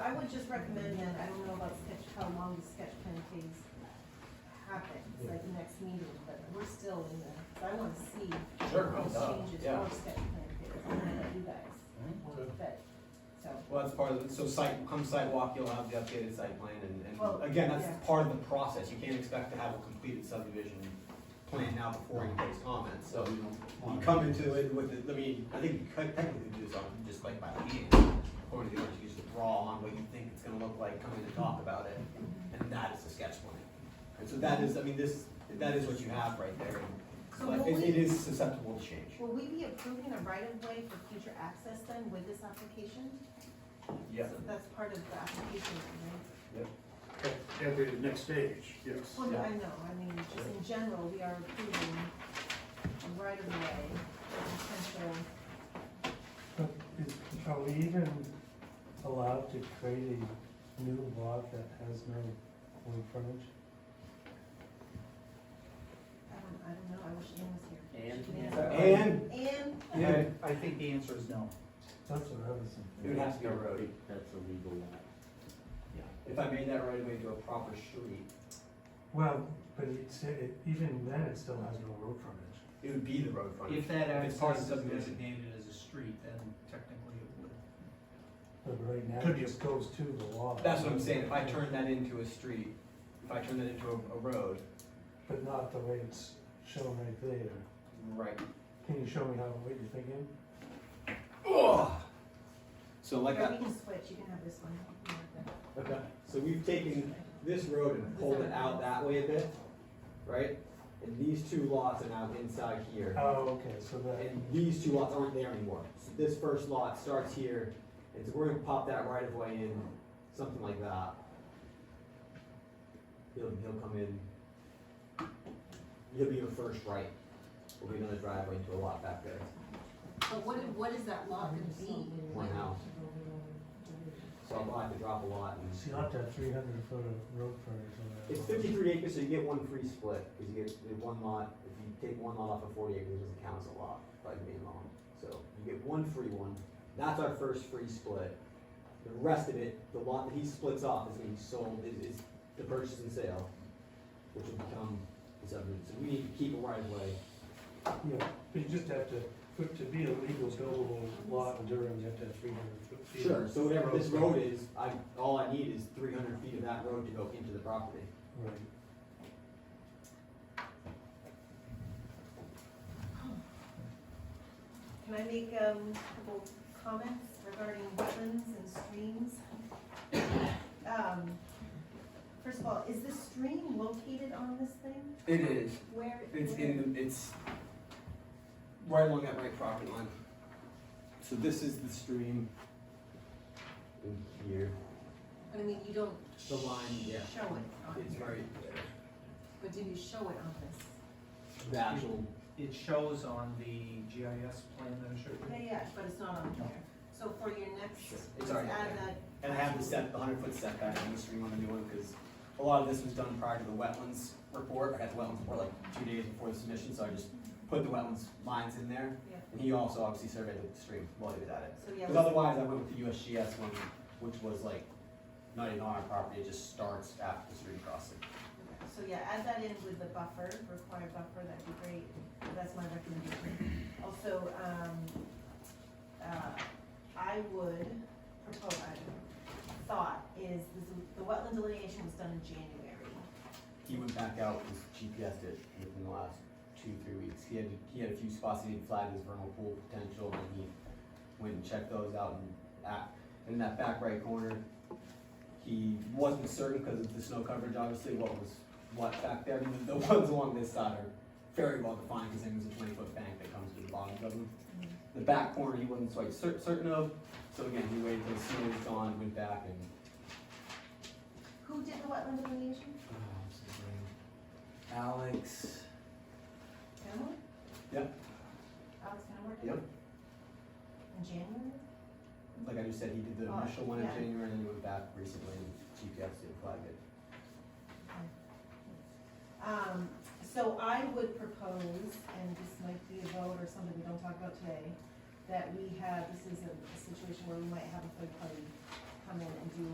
would just recommend that, I don't know about sketch, how long the sketch plan phase happens, like the next meeting, but we're still in the, so I wanna see Sure, no, those no, changes yeah. Mm-hmm. for sketch plan phase, I don't know about you guys, Good. but, so. Well, that's part of, it. so site, come sidewalk, you'll have the updated site plan, and, Well, and again, yeah. that's part of the process, you can't expect to have a completed subdivision plan now before you place comments, so you come into it with, it- I mean, I think you could technically do this on, just like by hand, or you can just draw on what you think it's gonna look like, coming to talk about it, and that is the sketch plan. And so that is, I mean, this, that is what you have right there, So but will it, we- it is susceptible to change, Will we be approving a right of way for future access then with this application? yeah. So that's part of the application, right? That'd be the next stage, yes. Well, no, I know, I mean, just in general, we are approving a right of way for potential, But is, are we even allowed to create a new lot that has no road frontage? I don't, I don't know, I wish Ann was here. Ann? She can answer. And, Ann, yeah, I think the answer is no. That's what I was thinking. it would have to be a road. That's a legal lot. If I made that right away to a proper street, Well, but it said, it- even then, it still has no road frontage. it would be the road frontage. If that It's part of access the is subdivision. designated as a street, then technically it would. But right now, Could it be. just goes to the lot. That's what I'm saying, if I turn that into a street, if I turn that into a, a road, But not the way it's shown right there. right. Can you show me how, what you're thinking? So like or we I, can switch, you can have this one. You can have that. okay, so we've taken this road and pulled it out that way a bit, right? And these two lots are now inside here, Oh, okay, so that, and these two lots aren't there anymore. So This first lot starts here, and so we're gonna pop that right of way in, something like that. He'll, he'll come in. He'll be your first right, will be another driveway to a lot back there. But what, what is that lot gonna be? One house. So I'm gonna have to drop a lot and. so you have to have three hundred foot of road frontage on that. It's lot. fifty-three acres, so you get one free split, cause you get, you get one lot, if you take one lot off of forty acres, it doesn't count as a lot, by the main law. So you get one free one, that's our first free split. The rest of it, the lot that he splits off is gonna be sold, is, is the purchase and sale, which will become the subdivision. So we need to keep a right of way. Yeah, but you just have to, for it to be a legal buildable lot in Durham, you have to have three hundred foot feet. of So whatever this road is, I, all I need is three hundred feet of that road to go into the property. Right. Can I make, um, a couple comments regarding wetlands and streams? Um, First of all, is the stream located on this thing? It is, Where? um, It's where- in, the it's right along that right property line. So this is the stream. In here. But I mean, you don't. The line, yeah. Show it on It's here, right, but do you show it on this? the actual, It shows on the GIS plan that I showed Yeah, you. yeah, but it's not on here. So for your next, Sure. It's just already add there. that. and I have the step, the hundred foot setback on the stream on the new one, cause a lot of this was done prior to the wetlands report. I had the wetlands report like two days before the submission, so I just put the wetlands lines in there. Yeah. And he also obviously surveyed the stream while he was at it. So yeah, Because otherwise, I went with the USGS one, which was like, not even on our property, it just starts after the stream crossing. let's- so yeah, add that in with the buffer, required buffer, that'd be great. That's my recommendation. Also, um, uh, I would propose, I thought is the- the wetland delineation was done in January. He went back out, his GPS did within the last two, three weeks. He had, he had a few spots he had flagged as vernal pool potential, and he went and checked those out and at, in that back right corner. He wasn't certain because of the snow coverage, obviously, what was what back there, and the ones along this side are very well defined, because there's a twenty foot bank that comes to the bottom of them. The back corner he wasn't quite cer- certain of, so again, he waited till the snow was gone, went back and Who did the wetland delineation? Oh, what's his name? Alex. Emily? Yep. Alex Howard? Yep. In January? Like I just said, he did the Oh, initial one in yeah. January and then he went back recently and GPS didn't flag it. Um, so I would propose, and this might be a vote or something we don't talk about today, that we have, this is a a situation where we might have a third party come in and do